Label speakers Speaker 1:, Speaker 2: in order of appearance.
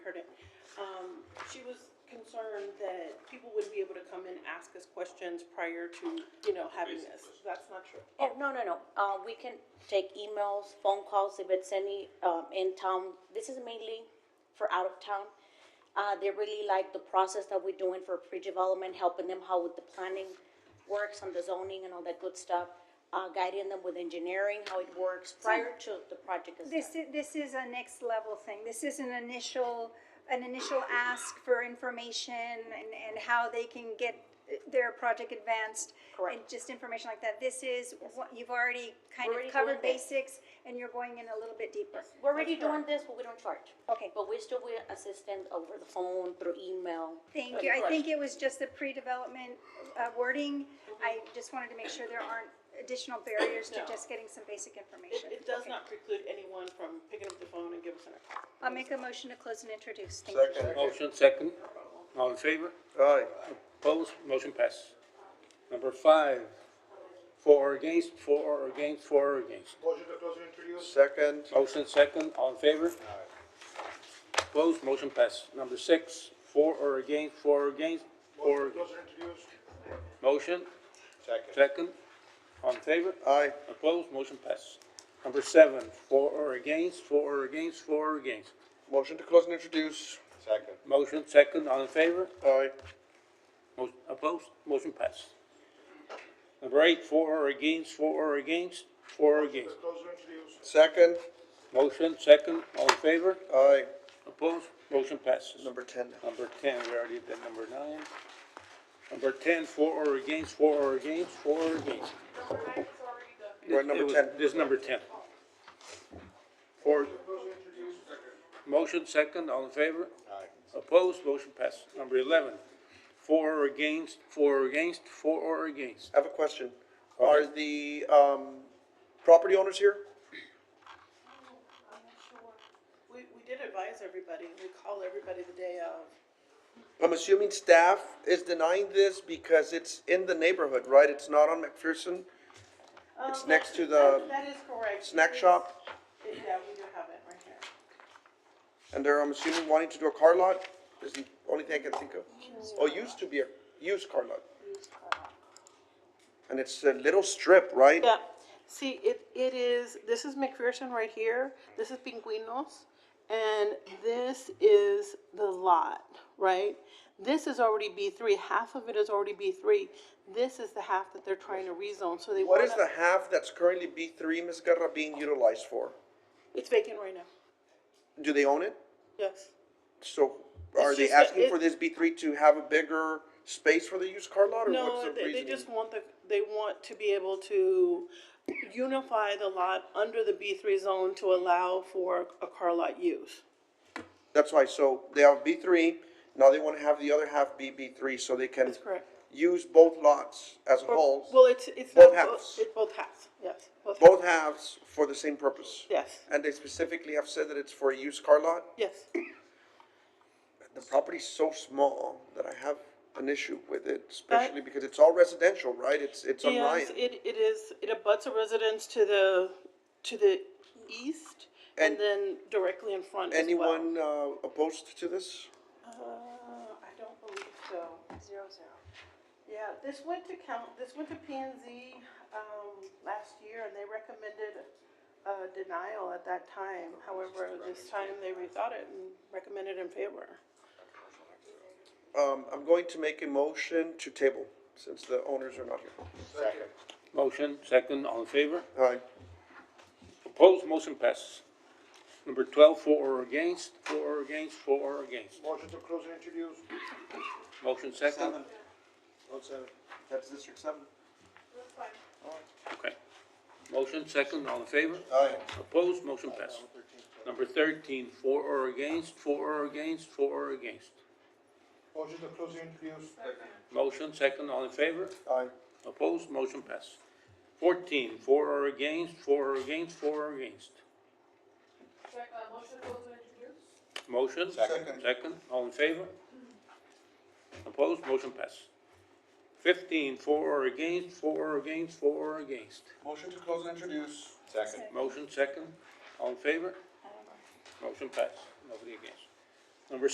Speaker 1: Um, She was concerned that people wouldn't be able to come in and ask us questions prior to, you know, having this. That's not true.
Speaker 2: Oh, no, no, no. Uh, we can take emails, phone calls if it's any um, in town. This is mainly for out of town. Uh, they really like the process that we're doing for pre-development, helping them how with the planning works on the zoning and all that good stuff. Uh, guiding them with engineering, how it works prior to the project is done.
Speaker 3: This is, this is a next level thing. This is an initial, an initial ask for information and, and how they can get their project advanced. And
Speaker 2: Correct.
Speaker 3: just information like that. This is what, you've already kind
Speaker 2: Already
Speaker 3: of covered
Speaker 2: doing it.
Speaker 3: basics and you're going in a little bit deeper.
Speaker 2: We're already doing this, but we don't charge.
Speaker 3: Okay.
Speaker 2: But we still, we assist them over the phone, through email.
Speaker 3: Thank you. I think it was just the pre-development uh, wording. I just wanted to make sure there aren't additional barriers to
Speaker 1: No.
Speaker 3: just getting some basic information.
Speaker 1: It, it does
Speaker 3: Okay.
Speaker 1: not preclude anyone from picking up the phone and giving us a call.
Speaker 3: I'll make a motion to close and introduce. Thank you.
Speaker 4: Second.
Speaker 5: Motion second. All in favor?
Speaker 4: Aye.
Speaker 5: Opposed? Motion passes. Number five, for or against, for or against, for or against.
Speaker 6: Motion to close and introduce.
Speaker 4: Second.
Speaker 5: Motion second, all in favor? Opposed? Motion passes. Number six, for or against, for or against, for or
Speaker 6: Motion to close and introduce.
Speaker 5: Motion
Speaker 4: Second.
Speaker 5: second, all in favor?
Speaker 4: Aye.
Speaker 5: Opposed? Motion passes. Number seven, for or against, for or against, for or against.
Speaker 4: Motion to close and introduce. Second.
Speaker 5: Motion second, all in favor?
Speaker 4: Aye.
Speaker 5: Motion Opposed? Motion passed. Number eight, for or against, for or against, for or
Speaker 6: To
Speaker 5: against.
Speaker 6: close and introduce.
Speaker 4: Second.
Speaker 5: Motion, second, all in favor?
Speaker 4: Aye.
Speaker 5: Opposed? Motion passes.
Speaker 4: Number ten.
Speaker 5: Number ten, we already did number nine. Number ten, for or against, for or against, for or against.
Speaker 4: We're at number
Speaker 5: It was-
Speaker 4: ten.
Speaker 5: This is number ten. For,
Speaker 6: Close and introduce. Second.
Speaker 5: motion, second, all in favor?
Speaker 4: Aye.
Speaker 5: Opposed? Motion passes. Number eleven, for or against, for or against, for or against.
Speaker 4: I have a question. Are the, um, property owners here?
Speaker 1: We, we did advise everybody, we call everybody the day of.
Speaker 4: I'm assuming staff is denying this because it's in the neighborhood, right? It's not on McPherson? It's
Speaker 1: Um,
Speaker 4: next to
Speaker 1: that-
Speaker 4: the
Speaker 1: That is correct.
Speaker 4: snack
Speaker 1: It is-
Speaker 4: shop?
Speaker 1: it- Yeah, we do have it right here.
Speaker 4: And they're, I'm assuming, wanting to do a car lot? Is the only thing I can think of. Or used to be a used car lot. And it's a little strip, right?
Speaker 1: Yeah, see, it, it is, this is McPherson right here, this is Pinguinos, and this is the lot, right? This is already B three, half of it is already B three, this is the half that they're trying to rezone, so they
Speaker 4: What
Speaker 1: wanna.
Speaker 4: is the half that's currently B three, Ms. Guerra, being utilized for?
Speaker 1: It's vacant right now,
Speaker 4: Do they own it?
Speaker 1: yes.
Speaker 4: So are
Speaker 1: It's
Speaker 4: they
Speaker 1: just that
Speaker 4: asking
Speaker 1: it-
Speaker 4: for this B three to have a bigger space for the used car lot or what's
Speaker 1: No,
Speaker 4: the
Speaker 1: they,
Speaker 4: reasoning?
Speaker 1: they just want the, they want to be able to unify the lot under the B three zone to allow for a car lot use.
Speaker 4: That's why, so they have B three, now they wanna have the other half be B three so they can
Speaker 1: That's correct.
Speaker 4: use both lots as a
Speaker 1: Or-
Speaker 4: whole.
Speaker 1: Well, it's, it's not,
Speaker 4: both
Speaker 1: both-
Speaker 4: halves.
Speaker 1: it's both halves, yes, both halves,
Speaker 4: Both halves for the same purpose.
Speaker 1: yes,
Speaker 4: And they specifically have said that it's for a used car lot.
Speaker 1: yes.
Speaker 4: The property's so small that I have an issue with it, especially because it's all residential, right? It's, it's on Ryan.
Speaker 1: Yes, it, it is, it abuts a residence to the, to the east and
Speaker 4: And-
Speaker 1: then directly in front as well.
Speaker 4: Anyone uh, opposed to this?
Speaker 1: Uh, I don't believe so. Zero, zero. Yeah, this went to count, this went to P and Z, um, last year and they recommended, uh, denial at that time. However, this time they rethought it and recommended in favor.
Speaker 4: Um, I'm going to make a motion to table, since the owners are not here.
Speaker 6: Second.
Speaker 5: Motion, second, all in favor?
Speaker 4: Aye.
Speaker 5: Opposed, motion passes. Number twelve, for or against, for or against, for or against.
Speaker 6: Motion to close and introduce.
Speaker 5: Motion second,
Speaker 4: Oh, seven. That's District Seven.
Speaker 5: okay. Motion second, all in favor?
Speaker 4: Aye.
Speaker 5: Opposed, motion passes. Number thirteen, for or against, for or against, for or against.
Speaker 6: Motion to close and introduce. Second.
Speaker 5: Motion second, all in favor?
Speaker 4: Aye.
Speaker 5: Opposed, motion passes. Fourteen, for or against, for or against, for or against. Motion,
Speaker 4: Second.
Speaker 5: second, all in favor? Opposed, motion passes. Fifteen, for or against, for or against, for or against.
Speaker 4: Motion to close and introduce. Second.
Speaker 5: Motion, second, all in favor? Motion passes, nobody against.